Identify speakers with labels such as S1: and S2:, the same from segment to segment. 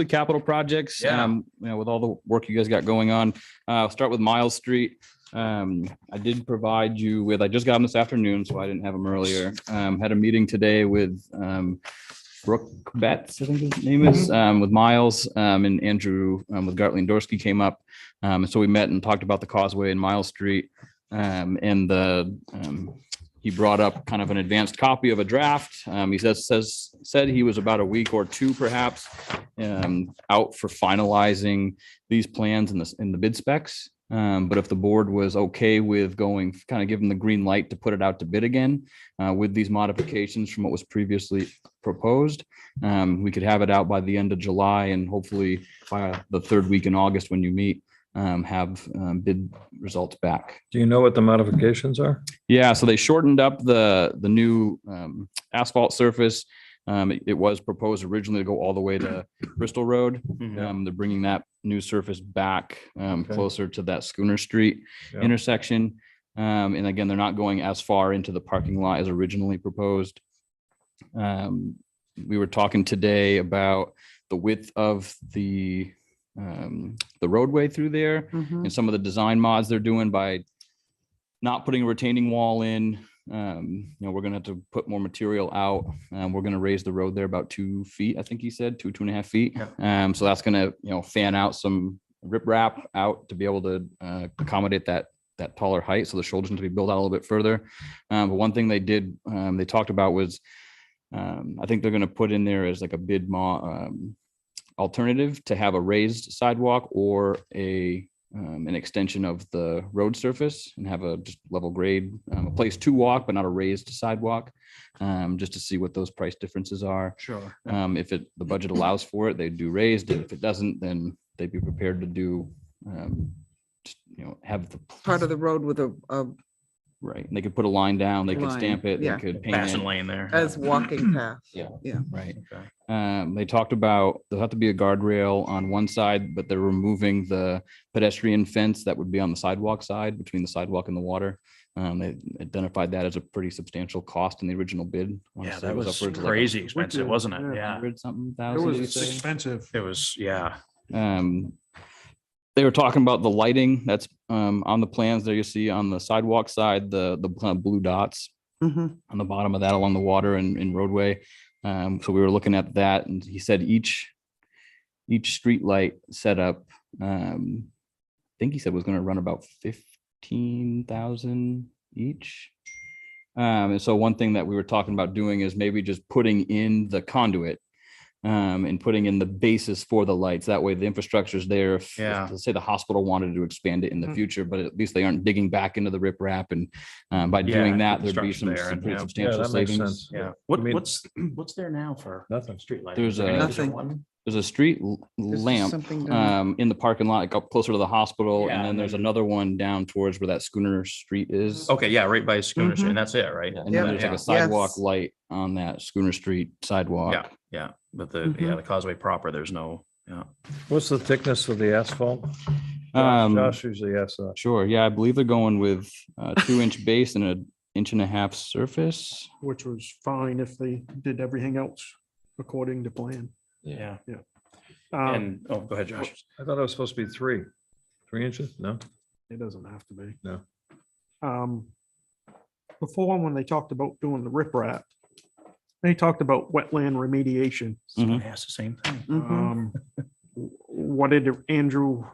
S1: the capital projects.
S2: Yeah.
S1: um, You know, with all the work you guys got going on, uh, I'll start with Miles Street. Um, I did provide you with, I just got them this afternoon, so I didn't have them earlier. Um, had a meeting today with, um, Brooke Betts, I think his name is, um, with Miles, um, and Andrew, um, with Gartley and Dorsky came up. Um, and so we met and talked about the causeway and Miles Street. Um, and the, um, he brought up kind of an advanced copy of a draft. Um, he says, says, said he was about a week or two perhaps um, out for finalizing these plans in the, in the bid specs. Um, but if the board was okay with going, kind of giving the green light to put it out to bid again, uh, with these modifications from what was previously proposed, um, we could have it out by the end of July and hopefully by the third week in August when you meet, um, have, um, bid results back.
S3: Do you know what the modifications are?
S1: Yeah, so they shortened up the, the new um, asphalt surface. Um, It it was proposed originally to go all the way to Bristol Road.
S3: Yeah.
S1: Um, They're bringing that new surface back um,
S3: Okay.
S1: closer to that Schooner Street
S3: Yeah.
S1: intersection. Um, And again, they're not going as far into the parking lot as originally proposed. Um, We were talking today about the width of the, um, the roadway through there
S3: Mm-hmm.
S1: and some of the design mods they're doing by not putting a retaining wall in. Um, you know, we're gonna have to put more material out. Um, we're gonna raise the road there about two feet, I think he said, two, two and a half feet. Um, so that's gonna, you know, fan out some riprap out to be able to uh, accommodate that that taller height, so the shoulders need to be built out a little bit further. Um, but one thing they did, um, they talked about was, um, I think they're gonna put in there as like a bid mo- um, alternative to have a raised sidewalk or a um, an extension of the road surface and have a just level grade, um, a place to walk, but not a raised sidewalk. Um, just to see what those price differences are.
S2: Sure.
S1: Um, if it, the budget allows for it, they do raised, and if it doesn't, then they'd be prepared to do, um, just, you know, have the.
S4: part of the road with a, a,
S1: Right, and they could put a line down, they could
S4: Line,
S1: stamp it, they
S4: yeah.
S1: could paint
S2: Fashion
S1: it,
S2: lane there.
S4: as walking path.
S1: right?
S2: Okay.
S1: Um, they talked about, there'll have to be a guardrail on one side, but they're removing the pedestrian fence that would be on the sidewalk side, between the sidewalk and the water. Um, they identified that as a pretty substantial cost in the original bid. I wanna
S2: Yeah,
S1: say
S2: that
S1: it
S2: was
S1: upwards of like
S2: crazy expensive,
S5: did,
S2: wasn't it?
S5: yeah.
S2: Yeah.
S1: 100 Something
S5: It
S1: thousand.
S5: was
S1: did you
S5: it's
S1: say?
S5: expensive.
S2: It was, yeah.
S1: Um, they were talking about the lighting that's, um, on the plans there you see on the sidewalk side, the, the kind of blue dots
S4: Mhm.
S1: on the bottom of that along the water and, and roadway. Um, so we were looking at that and he said each, each street light setup, um, I think he said was gonna run about fifteen thousand each. Um, and so one thing that we were talking about doing is maybe just putting in the conduit um, and putting in the basis for the lights. That way the infrastructure's there. If,
S2: Yeah.
S1: let's say the hospital wanted to expand it in the
S5: Mm.
S1: future, but at least they aren't digging back into the riprap and um, by
S2: Yeah,
S1: doing that, there'd be
S2: construction
S1: some
S2: there
S1: some
S2: and,
S1: pretty
S2: yeah.
S3: Yeah,
S1: substantial
S3: that makes sense.
S1: savings.
S2: Yeah. What,
S3: I mean-
S2: what's, what's there now for
S3: Nothing.
S2: street lighting?
S1: There's
S2: Is there
S1: a-
S2: any-
S4: Nothing.
S2: one?
S1: There's a street l-
S4: This is
S1: lamp
S4: something that-
S1: um, in the parking lot, like up closer to the hospital,
S2: Yeah,
S1: and then
S2: and
S1: there's
S2: then-
S1: another one down towards where that Schooner Street is.
S2: Okay, yeah, right by Schooner
S4: Mhm.
S2: Street. And that's it, right?
S1: And then
S4: Yeah.
S1: there's like
S2: Oh, Mm-hmm.
S1: a
S2: Yeah.
S1: sidewalk
S4: Yes.
S1: light on that Schooner Street
S2: Yeah,
S1: sidewalk.
S2: yeah. But the, yeah,
S4: Mhm.
S2: the causeway proper, there's no, yeah.
S3: What's the thickness of the asphalt? Josh
S1: Um,
S3: Josh usually asks that.
S1: Sure, yeah, I believe they're going with a two-inch base and an inch and a half surface.
S5: Which was fine if they did everything else according to plan.
S2: Yeah.
S5: Um,
S2: And, oh, go ahead, Josh.
S3: I thought it was supposed to be three, three inches? No?
S5: It doesn't have to be.
S3: No.
S5: Um, before, when they talked about doing the riprap, they talked about wetland remediation.
S1: Mhm.
S2: I asked the same thing.
S4: Mhm.
S5: Um, w- what did Andrew?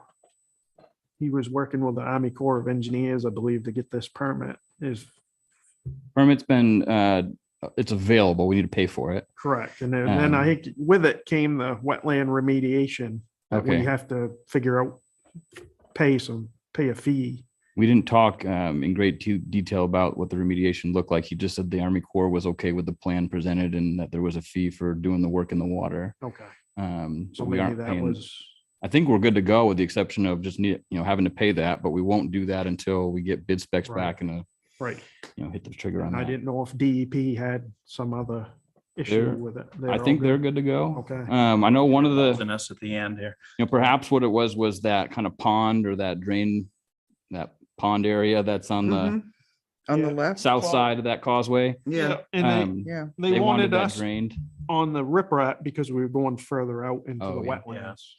S5: He was working with the Army Corps of Engineers, I believe, to get this permit is
S1: Permit's been, uh, it's available, we need to pay for it.
S5: correct. And then, then I think with it came the wetland remediation. that We
S1: Okay,
S5: have to figure out, pay some, pay a fee.
S1: we didn't talk, um, in great te- detail about what the remediation looked like. He just said the Army Corps was okay with the plan presented and that there was a fee for doing the work in the water.
S5: Okay.
S1: Um, so
S5: So
S1: we
S5: maybe
S1: aren't
S5: that
S1: paying,
S5: was,
S1: I think we're good to go with the exception of just need, you know, having to pay that, but we won't do that until we get bid specs
S5: Right.
S1: back and, uh,
S5: right.
S1: you know, hit the trigger on
S5: And I
S1: that.
S5: didn't know if DEP had some other issue
S1: They're-
S5: with it.
S1: I
S5: all
S1: think
S5: good?
S1: they're good to go.
S5: Okay.
S1: Um, I know one of the.
S2: Than us at the end here.
S1: you know, perhaps what it was, was that kind of pond or that drain, that pond area that's on the
S5: Mm-hmm.
S4: Mhm. On the
S5: Yeah.
S4: left,
S1: south side of that causeway.
S4: yeah,
S5: And
S1: Um,
S4: yeah.
S5: they, they wanted us,
S1: that drained.
S5: on the riprap because we were going further out into the
S1: Oh, yeah.
S5: wetlands.